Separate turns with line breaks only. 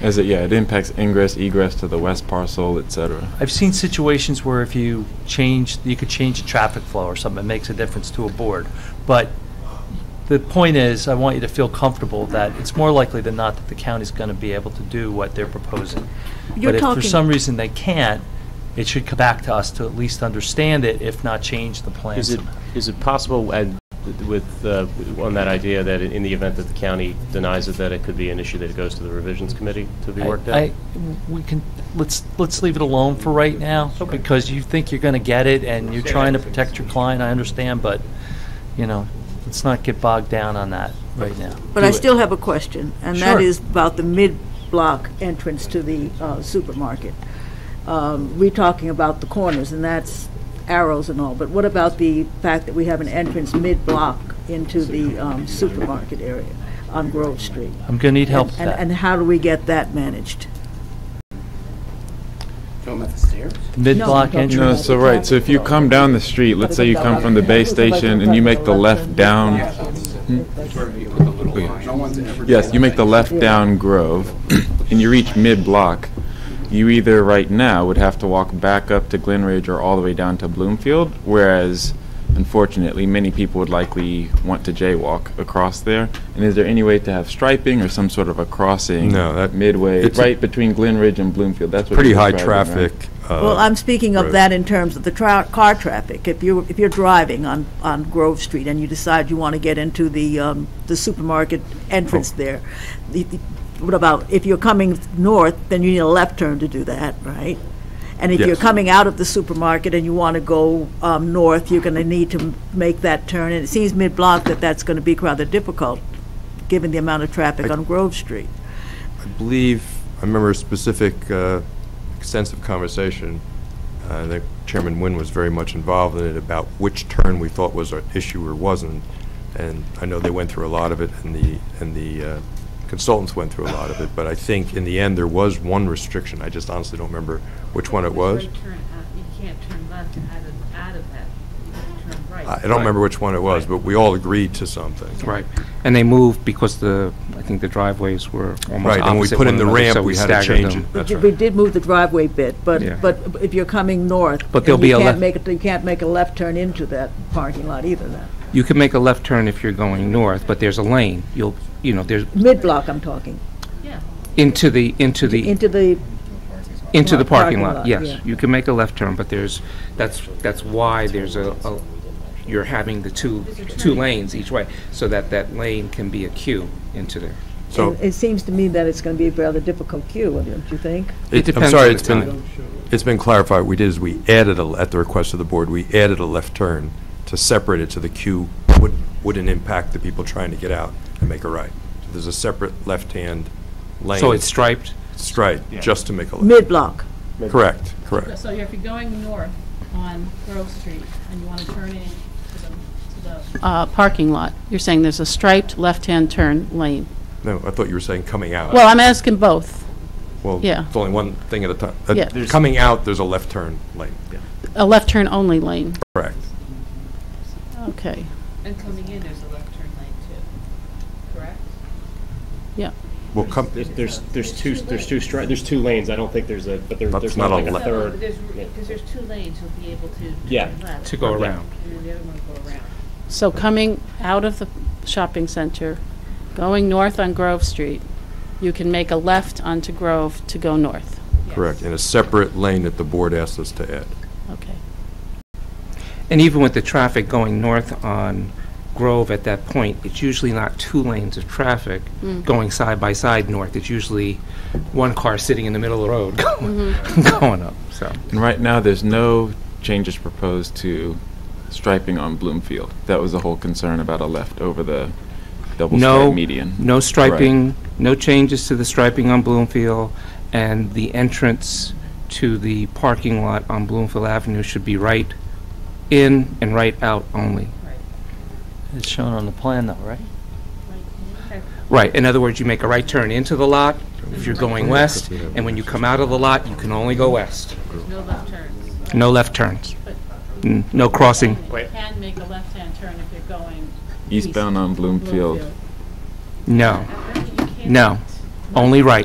As it, yeah, it impacts ingress, egress to the west parcel, et cetera.
I've seen situations where if you change, you could change the traffic flow or something, it makes a difference to a board. But the point is, I want you to feel comfortable that it's more likely than not that the county's going to be able to do what they're proposing.
You're
But if for
talking-
some reason they can't, it should come back to us to at least understand it, if not change the plan
Is it,
somehow.
is it possible, and with, uh, on that idea, that in the event that the county denies it, that it could be an issue that it goes to the revisions committee to be worked out?
I- We can, let's, let's leave it alone for right now, because you think you're gonna get it, and you're trying to protect your client, I understand, but, you know, let's not get bogged down on that right now.
But I still have a question, and
Sure.
that is about the mid-block entrance to the uh, supermarket. Um, We're talking about the corners, and that's arrows and all, but what about the fact that we have an entrance mid-block into the um, supermarket area on Grove Street?
I'm gonna need help with
And- And
that.
how do we get that managed?
Mid-block
No, no,
No,
Sure.
entrance,
so right, so if you come down the street, let's say you come from the base station and you make the left down. Hmm? Yes, you make the left down Grove and you reach mid-block, you either right now would have to walk back up to Glen Ridge or all the way down to Bloomfield, whereas unfortunately, many people would likely want to jaywalk across there. And is there any way to have striping or some sort of a crossing?
No, that-
Midway,
it's a-
right between Glen Ridge and Bloomfield, that's what.
Pretty
you're
high
describing, right?
traffic. uh,
Well, I'm speaking of
road.
that in terms of the tra- car traffic. If you, if you're driving on, on Grove Street and you decide you want to get into the, um, the supermarket entrance
Oh.
there, the- the- what about, if you're coming north, then you need a left turn to do that, right? And if you're
Yes.
coming out of the supermarket and you want to go, um, north, you're going to need to m- make that turn. And it seems mid-block that that's going to be rather difficult, given the amount of traffic on Grove Street.
I believe, I remember a specific uh, extensive conversation, uh, I think Chairman Nguyen was very much involved in it, about which turn we thought was an issue or wasn't. And I know they went through a lot of it, and the, and the uh, consultants went through a lot of it, but I think in the end, there was one restriction, I just honestly don't remember which one it was.
You turn out- you can't turn left out of, out of that, you have to turn right.
I I don't remember which one it was, but we all agreed to something.
Right, and they moved because the, I think the driveways were almost
Right, and we
opposite
put
one
in the
another, so
ramp, we
we
had to
staggered
change
them.
it.
We
That's
did-
right.
We did move the driveway bit, but,
Yeah.
but if you're coming north.
But
then
there'll be
you
a
can't
left-
make it- You can't make a left turn into that parking lot either then.
You can make a left turn if you're going north, but there's a lane, you'll, you know, there's,
Mid-block, I'm talking,
Yeah.
into the, into the,
into the,
into the
Right, parking
parking
lot,
lot,
yeah.
yes. You can make a left turn, but there's, that's, that's why there's a, a- you're having the two, two lanes each way, so that that lane can be a queue into there.
So-
and it seems to me that it's going to be a rather difficult queue, don't you think?
It depends
I'm sorry,
on the
it's been, it's been clarified, what we did is we added, a at the request of the board, we added a left turn to separate it so the queue wouldn't, wouldn't impact the people trying to get out and make a right. So There's a separate left-hand lane.
So it's striped?
Straight, just to make a left.
Mid-block,
Correct, correct.
So if you're going north on Grove Street and you want to turn in to the, to the. Uh, parking lot, you're saying there's a striped left-hand turn lane.
No, I thought you were saying coming out.
Well, I'm asking both.
Well,
yeah.
It's only one thing at a time. Uh,
Yeah.
Coming out, there's a left turn lane.
A left turn only lane,
Correct.
okay,
Oh. And coming in, there's a left turn lane too, correct?
yeah.
Well, come,
There's, there's, there's two, there's two stri, there's two lanes, I don't think there's a, but there,
That's
there's
not
not like
a
a
left.
So,
third.
there's, because there's two lanes, you'll be able to
Yeah.
turn left.
To go around.
And then the other one will go around.
So coming out of the shopping center, going north on Grove Street, you can make a left onto Grove to go north.
correct, in a separate lane that the board asked us to add.
Okay.
And even with the traffic going north on Grove at that point, it's usually not two lanes of traffic going side by side north. It's usually one car sitting in the middle of the road going, going up, so.
And right now, there's no changes proposed to striping on Bloomfield. That was the whole concern about a left over the double
No,
stripe median.
no striping, no changes to the striping on Bloomfield, and the entrance to the parking lot on Bloomfield Avenue should be right in and right out only.
it's shown on the plan though, right?
Right, in other words, you make a right turn into the lot if you're going west, and when you come out of the lot, you can only go west.
There's no left turns.
No left turns. N- No crossing.
You can make a left-hand turn if you're going.
Eastbound on Bloomfield.
No.
I bet you can't.
No. Only right.